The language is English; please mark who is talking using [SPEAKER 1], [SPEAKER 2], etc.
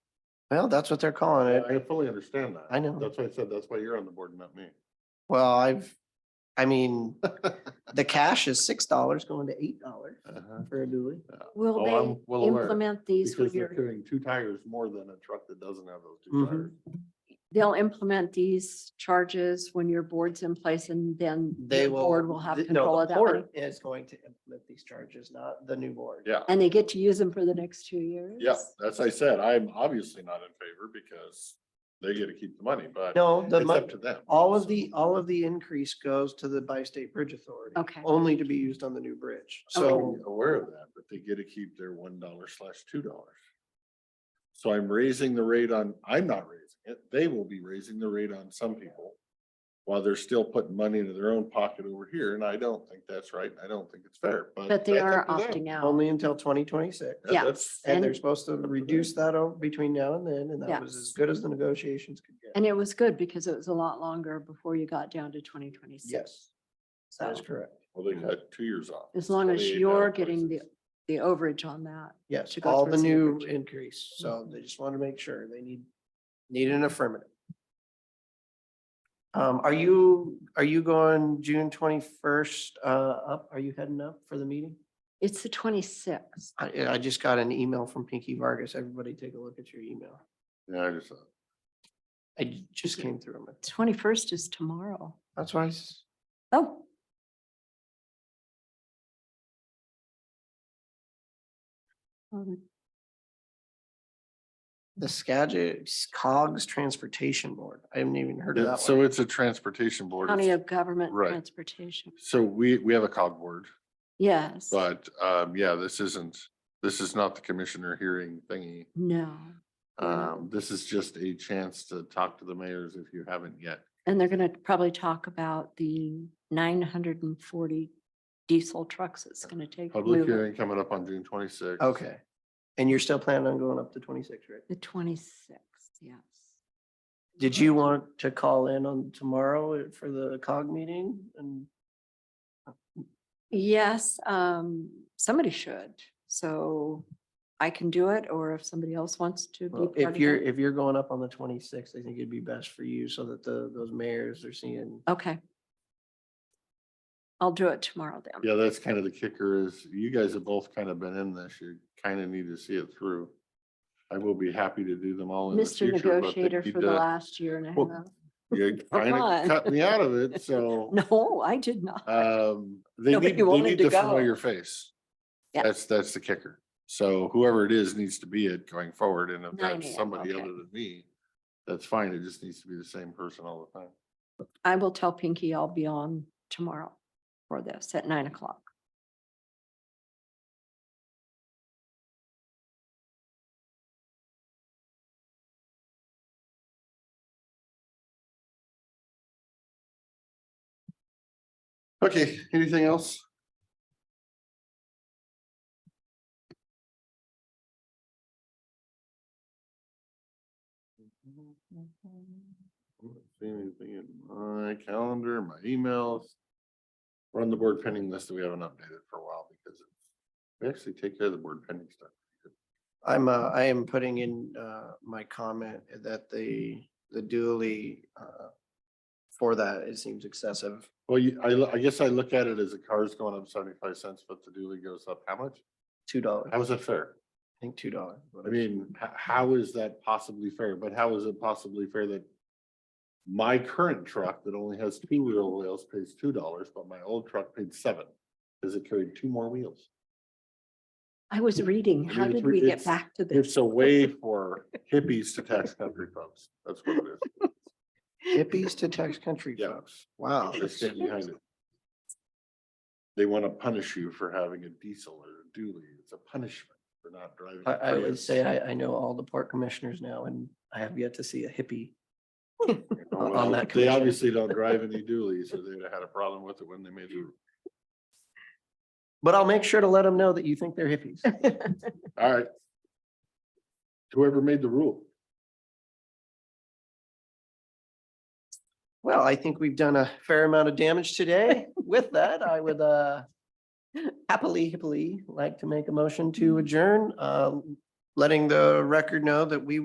[SPEAKER 1] Well, that's what they're calling it.
[SPEAKER 2] I fully understand that.
[SPEAKER 1] I know.
[SPEAKER 2] That's why I said, that's why you're on the board, not me.
[SPEAKER 1] Well, I've, I mean, the cash is six dollars going to eight dollars
[SPEAKER 2] Uh-huh.
[SPEAKER 1] for a dually.
[SPEAKER 2] Oh,
[SPEAKER 3] Will
[SPEAKER 2] I'm well
[SPEAKER 3] they
[SPEAKER 2] aware,
[SPEAKER 3] implement these when
[SPEAKER 2] Because they're
[SPEAKER 3] you're,
[SPEAKER 2] carrying two tires more than a truck that doesn't have those two
[SPEAKER 1] Mhm.
[SPEAKER 2] tires.
[SPEAKER 3] they'll implement these charges when your board's in place and then
[SPEAKER 1] They
[SPEAKER 3] the
[SPEAKER 1] will.
[SPEAKER 3] board will have
[SPEAKER 1] th- no,
[SPEAKER 3] control
[SPEAKER 1] the
[SPEAKER 3] of that money?
[SPEAKER 1] board Is going to implement these charges, not the new board.
[SPEAKER 2] Yeah,
[SPEAKER 3] And they get to use them for the next two years?
[SPEAKER 2] yeah, that's, I said, I'm obviously not in favor because they get to keep the money, but
[SPEAKER 1] No, the,
[SPEAKER 2] it's
[SPEAKER 1] mon-
[SPEAKER 2] up to them.
[SPEAKER 1] all of the, all of the increase goes to the bi-state bridge authority.
[SPEAKER 3] Okay. Oh,
[SPEAKER 1] Only to be used on the new bridge.
[SPEAKER 2] So
[SPEAKER 1] So
[SPEAKER 2] I'm aware of that, but they get to keep their one dollar slash two dollars. So I'm raising the rate on, I'm not raising it, they will be raising the rate on some people. While they're still putting money into their own pocket over here, and I don't think that's right, and I don't think it's fair, but.
[SPEAKER 3] But they
[SPEAKER 2] that's
[SPEAKER 3] are
[SPEAKER 2] up to them.
[SPEAKER 3] opting out.
[SPEAKER 1] only until twenty twenty-six.
[SPEAKER 2] That-
[SPEAKER 3] yeah.
[SPEAKER 2] that's-
[SPEAKER 1] And they're
[SPEAKER 3] And-
[SPEAKER 1] supposed to reduce that o- between now and then, and
[SPEAKER 3] Yeah.
[SPEAKER 1] that was as good as the negotiations could get.
[SPEAKER 3] And it was good because it was a lot longer before you got down to twenty twenty-six.
[SPEAKER 1] Yes, that is correct.
[SPEAKER 2] Well, they got two years off.
[SPEAKER 3] As long as
[SPEAKER 2] 28
[SPEAKER 3] you're
[SPEAKER 2] now
[SPEAKER 3] getting the,
[SPEAKER 2] versus-
[SPEAKER 3] the overage on that.
[SPEAKER 1] Yes,
[SPEAKER 3] to go
[SPEAKER 1] all the
[SPEAKER 3] towards the
[SPEAKER 1] new
[SPEAKER 3] average.
[SPEAKER 1] increase. So they just want to make sure they need, need an affirmative. Um, are you, are you going June twenty-first, uh, up? Are you heading up for the meeting?
[SPEAKER 3] It's the twenty-sixth.
[SPEAKER 1] I, I just got an email from Pinky Vargas. Everybody take a look at your email.
[SPEAKER 2] Yeah, I just, uh,
[SPEAKER 1] I just came through. 'em.
[SPEAKER 3] Twenty-first is tomorrow.
[SPEAKER 1] That's why, I s-
[SPEAKER 3] Oh, oh,
[SPEAKER 1] the Skagit Cogs Transportation Board. I haven't even heard of
[SPEAKER 2] Yeah,
[SPEAKER 1] that
[SPEAKER 2] so
[SPEAKER 1] one.
[SPEAKER 2] it's a transportation
[SPEAKER 3] the
[SPEAKER 2] board.
[SPEAKER 3] County
[SPEAKER 2] It's-
[SPEAKER 3] of Government
[SPEAKER 2] Right.
[SPEAKER 3] Transportation.
[SPEAKER 2] So we, we have a cog board,
[SPEAKER 3] Yes.
[SPEAKER 2] but, um, yeah, this isn't, this is not the commissioner hearing thingy.
[SPEAKER 3] No. Yeah.
[SPEAKER 2] Um, this is just a chance to talk to the mayors if you haven't yet.
[SPEAKER 3] And they're going to probably talk about the nine hundred and forty diesel trucks it's going to take. to
[SPEAKER 2] Public
[SPEAKER 3] move it.
[SPEAKER 2] hearing coming up on June twenty-sixth.
[SPEAKER 1] Okay. And you're still planning on going up to twenty-six, right?
[SPEAKER 3] The twenty-sixth, yes.
[SPEAKER 1] Did you want to call in on tomorrow for the cog meeting and?
[SPEAKER 3] Yes, um, somebody should. So I can do it, or if somebody else wants to be.
[SPEAKER 1] Well,
[SPEAKER 3] part of
[SPEAKER 1] If you're,
[SPEAKER 3] it.
[SPEAKER 1] if you're going up on the twenty-sixth, I think it'd be best for you so that the, those mayors are seeing.
[SPEAKER 3] Okay. I'll do it tomorrow then.
[SPEAKER 2] Yeah, that's kind of the kicker is you guys have both kind of been in this. You kind of need to see it through. I will be happy to do them all in the
[SPEAKER 3] Mr.
[SPEAKER 2] future. but they
[SPEAKER 3] Negotiator
[SPEAKER 2] need
[SPEAKER 3] for the
[SPEAKER 2] to-
[SPEAKER 3] last year and a
[SPEAKER 2] Well,
[SPEAKER 3] half.
[SPEAKER 2] You
[SPEAKER 3] Come
[SPEAKER 2] kind
[SPEAKER 3] on.
[SPEAKER 2] of cut me out of it, so,
[SPEAKER 3] No, I did not.
[SPEAKER 2] um, they
[SPEAKER 3] No, but
[SPEAKER 2] need,
[SPEAKER 3] you
[SPEAKER 2] they
[SPEAKER 3] wanted
[SPEAKER 2] need
[SPEAKER 3] to
[SPEAKER 2] the
[SPEAKER 3] go.
[SPEAKER 2] familiar face.
[SPEAKER 3] Yeah.
[SPEAKER 2] That's, that's the kicker. So whoever it is needs to be it going forward, and if
[SPEAKER 3] 9
[SPEAKER 2] that's
[SPEAKER 3] a.m.,
[SPEAKER 2] somebody
[SPEAKER 3] okay.
[SPEAKER 2] other than me, that's fine. It just needs to be the same person all the time.
[SPEAKER 3] I will tell Pinky I'll be on tomorrow for this at nine o'clock.
[SPEAKER 2] Okay, anything else? I don't See anything in my calendar, my emails? We're on the board pending list that we haven't updated for a while because it's- we actually take care of the board pending stuff.
[SPEAKER 1] I'm, uh, I am putting in, uh, my comment that the, the dually, uh, for that, it seems excessive.
[SPEAKER 2] Well, you, I, lo- I guess I look at it as a car's going up seventy-five cents, but the dually goes up how much?
[SPEAKER 1] Two dollars, I
[SPEAKER 2] How is that fair?
[SPEAKER 1] think two dollars.
[SPEAKER 2] I mean, h- how is that possibly fair? But how is it possibly fair that my current truck that only has two wheel wheels pays two dollars, but my old truck paid seven? Because it carried two more wheels.
[SPEAKER 3] I was reading,
[SPEAKER 2] I
[SPEAKER 3] how
[SPEAKER 2] mean,
[SPEAKER 3] did
[SPEAKER 2] it's re-
[SPEAKER 3] we get
[SPEAKER 2] it's-
[SPEAKER 3] back to this?
[SPEAKER 2] It's a way for hippies to tax country folks. That's what it is.
[SPEAKER 1] Hippies to tax country
[SPEAKER 2] Yeah. Oh,
[SPEAKER 1] folks. Wow.
[SPEAKER 2] They stand behind it. They want to punish you for having a diesel or a dually. It's a punishment for not driving. a
[SPEAKER 1] I, I would
[SPEAKER 2] Prius.
[SPEAKER 1] say I, I know all the port commissioners now and I have yet to see a hippie.
[SPEAKER 2] Oh,
[SPEAKER 1] on- on
[SPEAKER 2] well,
[SPEAKER 1] that
[SPEAKER 2] They
[SPEAKER 1] commission.
[SPEAKER 2] obviously don't drive any dualies, or they'd have had a problem with it when they made the rule.
[SPEAKER 1] But I'll make sure to let them know that you think they're hippies.
[SPEAKER 2] All right. Whoever made the rule.
[SPEAKER 1] Well, I think we've done a fair amount of damage today. With that, I would uh happily, happily like to make a motion to adjourn, uh letting the record know that we